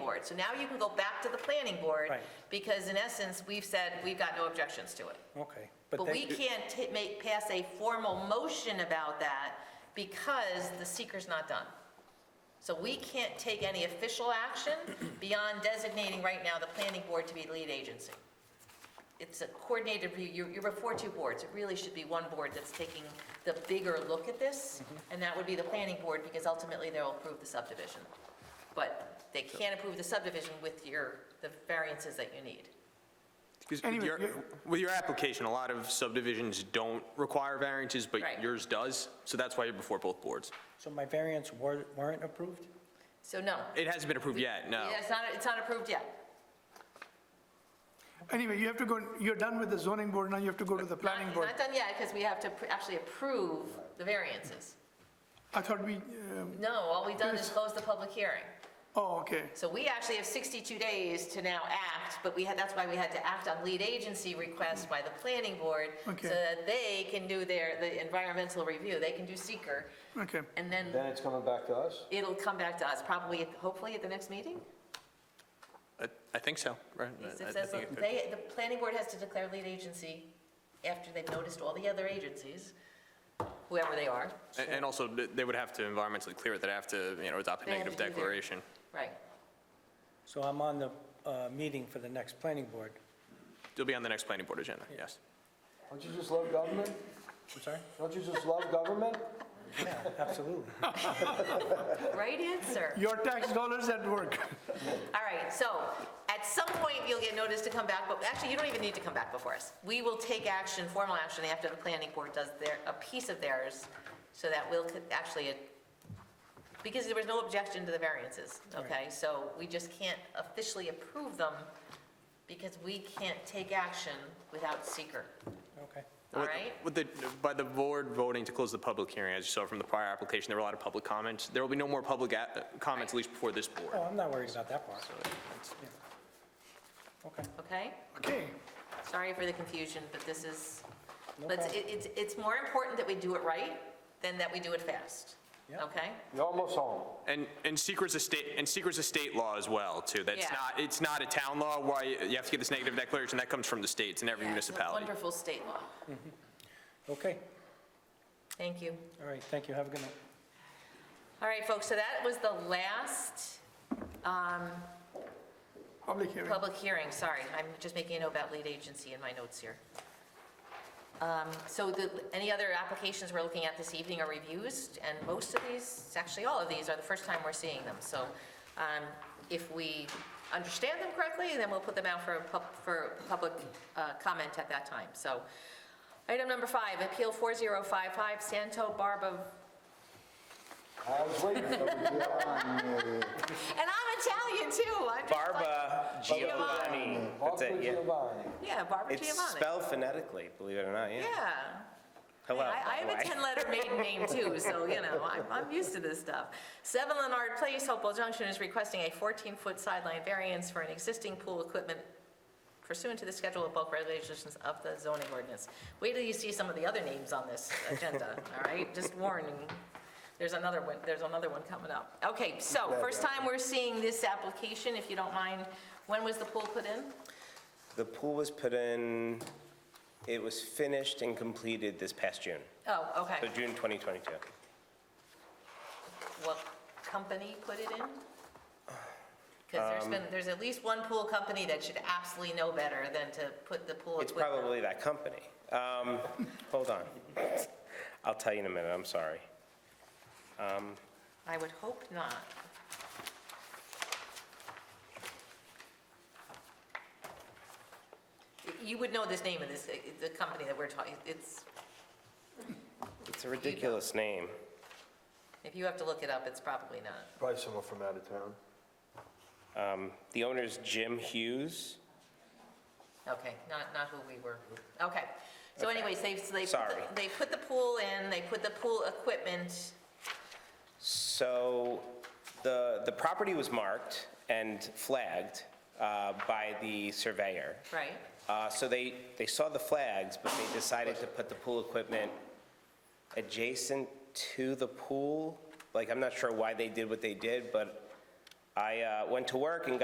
board. So now you can go back to the planning board, Right. because in essence, we've said, we've got no objections to it. Okay. But they- we can't ta- make, pass a formal motion about that because the seeker's not done. So we can't take any official action beyond designating right now the planning board to be the lead agency. It's a coordinated review, you're, you're before two boards, it really should be one board that's taking the bigger look at this, Mm-hmm. and that would be the planning board, because ultimately they'll approve the subdivision. But they can't approve the subdivision with your, the variances that you need. Because with Anyway, your, you- with your application, a lot of subdivisions don't require variances, but Right. yours does, so that's why you're before both boards. So my variants were- weren't approved? So no. It hasn't been approved yet, no. Yeah, It's not, it's not approved yet. Anyway, you have to go, you're done with the zoning board, now you have to go to the planning Not- board. Not done yet, because we have to pr- actually approve the variances. I thought we, um, No, all we've done is close the public hearing. oh, okay. So we actually have 62 days to now act, but we had, that's why we had to act on lead agency requests by the planning board, so Okay. that they can do their, the environmental review, they can do seeker, Okay, and then Then it's coming back to us? it'll come back to us, probably, hopefully at the next meeting? I I think so, right? It I- I says think it- They, the planning board has to declare lead agency after they've noticed all the other agencies, whoever they are, And and also, th- they would have to environmentally clear it, they'd have to, you know, adopt a They have negative to do their- declaration. right? So I'm on the uh, meeting for the next planning board. It'll be on the next planning board agenda, yes. Don't you just love government? I'm sorry? Don't you just love government? Absolutely. Right answer. your tax dollars at work. All right, so at some point, you'll get notice to come back, but actually, you don't even need to come back before us. We will take action, formal action, after the planning board does their, a piece of theirs, so that we'll co- actually, uh, because there was no objection to the variances, okay? So we just can't officially approve them, because we can't take action without seeker, Okay. all With- right? With the, by the board voting to close the public hearing, as you saw from the prior application, there were a lot of public comments. There will be no more public a- comments, at least before this board. Oh, I'm not worried about that part. Yeah. Okay. Okay? Okay, Sorry for the confusion, but this is, No but problem. it- it's, it's more important that we do it right than that we do it fast, Yeah. okay? You're almost home. And, and secret's a state, and secret's a state law as well, too. That's Yeah. not, it's not a town law where you you have to get this negative declaration, that comes from the states and every Yeah, it's a municipality. Wonderful state law. Okay, Thank you. all right, thank you, have a good night. All right, folks, so that was the last public hearing. public hearing, sorry. I'm just making a note about lead agency in my notes here. Um, So the, any other applications we're looking at this evening are reviews, and most of these, actually all of these, are the first time we're seeing them. So um, if we understand them correctly, then we'll put them out for, a pub- for public uh, comment at that time. So item number five, Appeal 4055, Santo Barba I was waiting for you. And I'm Italian too. I'm just like- Barba Giovanni. That's Marco it, yeah. Giovanni. yeah, Barbara It's Giovanni. spelled phonetically, believe it or not, yeah. yeah. Hello, I, I by the have a way. 10 letter maiden name too, so you know, I'm, I'm used to this stuff. 7 Leonard Place, Hopewell Junction is requesting a 14 foot sideline variance for an existing pool equipment pursuant to the schedule of bulk regulations of the zoning ordinance. Wait till you see some of the other names on this agenda, all right? Just warning, there's another one, there's another one coming up. Okay, so first time we're seeing this application, if you don't mind, when was the pool put in? The pool was put in, it was finished and completed this past June, Oh, so okay. June 2022. What company put it in? Because there's Um, been, there's at least one pool company that should absolutely know better than to put the pool It's equipment- probably that company. Um, Hold on. I'll tell you in a minute, I'm sorry. I would hope not. You would know this name of this, the company that we're talking, it's, It's a ridiculous name. if you have to look it up, it's probably not. Probably someone from out of town. Um, The owner's Jim Hughes. Okay, not, not who we were, okay. So anyways, they, they, put Sorry. the- they put the pool in, they put the pool equipment, So the, the property was marked and flagged uh, by the surveyor. right? Uh, So they, they saw the flags, but they decided to put the pool equipment adjacent to the pool. Like, I'm not sure why they did what they did, but I uh, went to work and got